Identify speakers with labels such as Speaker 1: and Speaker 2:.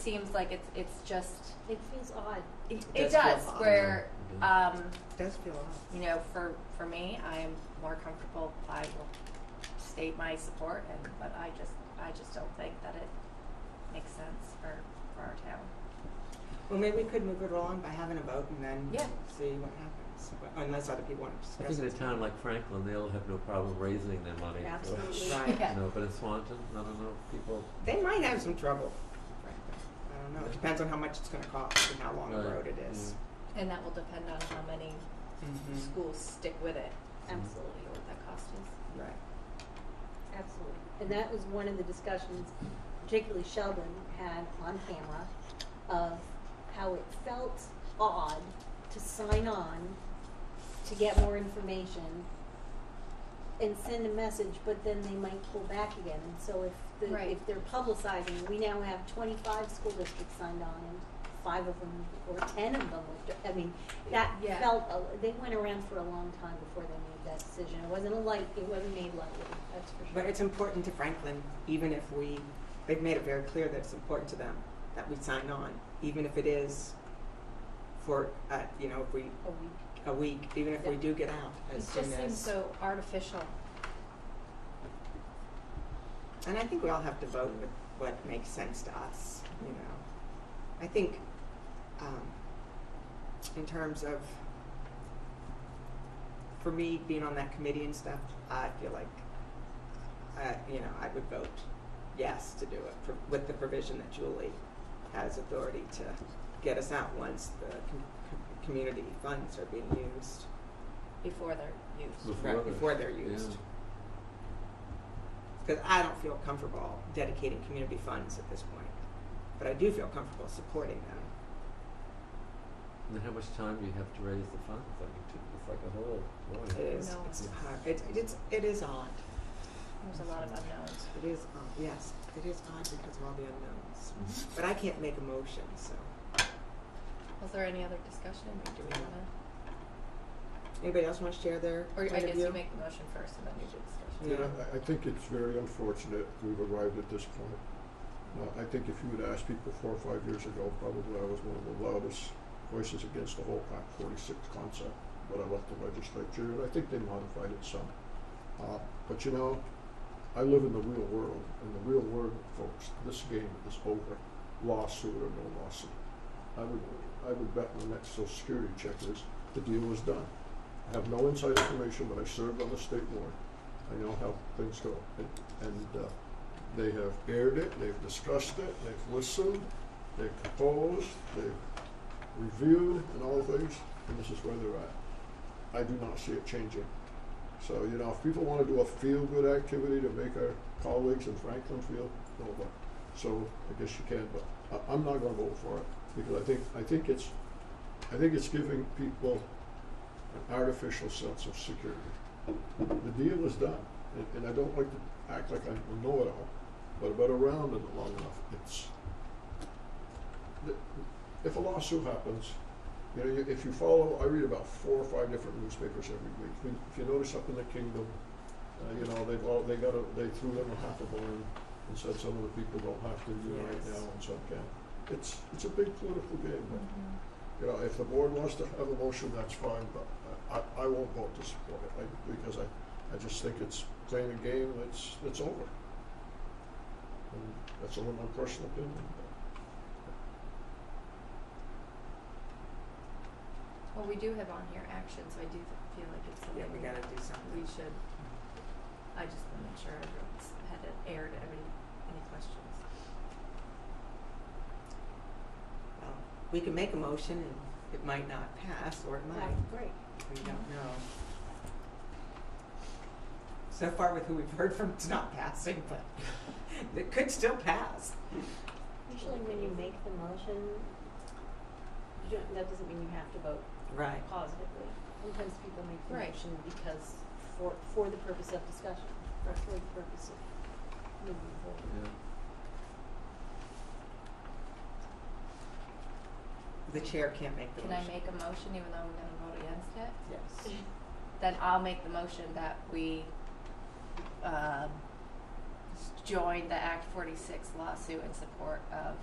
Speaker 1: seems like it's it's just
Speaker 2: It feels odd.
Speaker 1: it,
Speaker 3: It
Speaker 1: it
Speaker 3: does feel
Speaker 1: does
Speaker 3: odd.
Speaker 1: where um,
Speaker 3: does feel odd.
Speaker 1: you know for for me I'm more comfortable I will state my support and but I just I just don't think that it makes sense for for our town.
Speaker 3: Well, maybe we could move it along by having a vote and then
Speaker 1: Yeah.
Speaker 3: see what happens, But- unless other people want to discuss
Speaker 4: I think in a
Speaker 3: it.
Speaker 4: town like Franklin, they'll have no problem raising their money. so-
Speaker 2: Absolutely.
Speaker 3: Right.
Speaker 1: Yeah.
Speaker 4: No, but in Swanton, I don't know, people,
Speaker 3: They might have some trouble, frankly. I don't know. It depends on how much it's going to cost and how long a
Speaker 4: Right.
Speaker 3: road it is.
Speaker 1: And that will depend on how many
Speaker 3: Mhm.
Speaker 1: schools stick with it
Speaker 2: Absolutely,
Speaker 1: or what that cost is.
Speaker 3: Right.
Speaker 2: absolutely. And that was one of the discussions, particularly Sheldon had on camera, of how it felt odd to sign on to get more information and send a message, but then they might pull back again. And so if the,
Speaker 1: Right.
Speaker 2: if they're publicizing, we now have twenty-five school districts signed on and five of them or ten of them, were- I mean, that
Speaker 1: Yeah.
Speaker 2: felt, a- Oh, they went around for a long time before they made that decision. It wasn't a light, it wasn't made lightly, that's for sure.
Speaker 3: But it's important to Franklin, even if we, they've made it very clear that it's important to them that we sign on, even if it is for, uh, you know, if we,
Speaker 2: A week.
Speaker 3: a week, even if we do get out as
Speaker 1: It
Speaker 3: soon
Speaker 1: just seems
Speaker 3: as-
Speaker 1: so artificial.
Speaker 3: And I think we all have to vote with what makes sense to us, you know. I think, um, in terms of, for me, being on that committee and stuff, I feel like, uh, you know, I would vote yes to do it for, with the provision that Julie has authority to get us out once the com- com- community funds are being used,
Speaker 1: Before they're used.
Speaker 4: Before
Speaker 3: right,
Speaker 4: they-
Speaker 3: before they're
Speaker 4: yeah.
Speaker 3: used. because I don't feel comfortable dedicating community funds at this point. But I do feel comfortable supporting them.
Speaker 4: And then how much time do you have to raise the funds? I mean, to- it's like a whole,
Speaker 3: It
Speaker 4: boy.
Speaker 3: is,
Speaker 1: No.
Speaker 3: it's hard, it, it's, it is odd.
Speaker 1: There's a lot of unknowns.
Speaker 3: It is, odd. yes, it is odd because of all the unknowns.
Speaker 4: Mm-hmm.
Speaker 3: But I can't make a motion, so.
Speaker 1: Was there any other discussion? Or do we wanna?
Speaker 3: Anybody else want to share their
Speaker 1: Or
Speaker 3: point
Speaker 1: I
Speaker 3: of
Speaker 1: guess
Speaker 3: view?
Speaker 1: you make the motion first and then you do discussion.
Speaker 3: Yeah.
Speaker 5: Yeah, I, I think it's very unfortunate we've arrived at this point. Uh, I think if you had asked people four or five years ago, probably I was one of the loudest voices against the whole Act forty-six concept, but I left the legislature, and I think they modified it some. Uh, but you know, I live in the real world, and the real world, folks, this game is over, lawsuit or no lawsuit. I would, I would bet my next social security check is, the deal was done. I have no inside information, but I served on the state board. I know how things go. And, and uh, they have aired it, they've discussed it, they've listened, they've proposed, they've reviewed and all things, and this is where they're at. I do not see it changing. So, you know, if people want to do a feel-good activity to make our colleagues in Franklin feel, no, but, so I guess you can, but I, I'm not gonna vote for it, because I think, I think it's, I think it's giving people an artificial sense of security the deal is done, and, and I don't like to act like I know it all, but I've been around it long enough, it's, the- if a lawsuit happens, you know, you- if you follow, I read about four or five different newspapers every week, If you- if you notice up in the kingdom, uh, you know, they've all, they got a, they threw them a half a barn and said some of the people don't have to unite
Speaker 3: Yes.
Speaker 5: now and some can. It's, it's a big political game, but you know, if the board wants to have a motion, that's fine, but I, I, I won't vote to support it, I, because I, I just think it's playing a game that's, that's over. And that's only my personal opinion,
Speaker 1: Well, we do have on here action, so I do th- feel like it's
Speaker 3: Yeah,
Speaker 1: something
Speaker 3: we gotta
Speaker 1: we
Speaker 3: do something.
Speaker 1: should, I just want to make sure everyone's had it aired, every, any questions.
Speaker 3: Well, We can make a motion and it might not pass, or it might,
Speaker 2: Wow, great.
Speaker 3: we don't know. So far with who we've heard from, it's not passing, but it could still pass.
Speaker 2: Usually when you make the motion, you don't, that doesn't mean you have to vote
Speaker 3: Right.
Speaker 2: positively. Sometimes people make the
Speaker 1: Right.
Speaker 2: motion because, for, for the purpose of discussion, or for the purpose of moving forward.
Speaker 3: The
Speaker 4: Yeah.
Speaker 3: chair can't make the
Speaker 1: Can
Speaker 3: motion.
Speaker 1: I make a motion even though I'm gonna vote against it?
Speaker 3: Yes.
Speaker 1: Then I'll make the motion that we, um, join the Act forty-six lawsuit in support of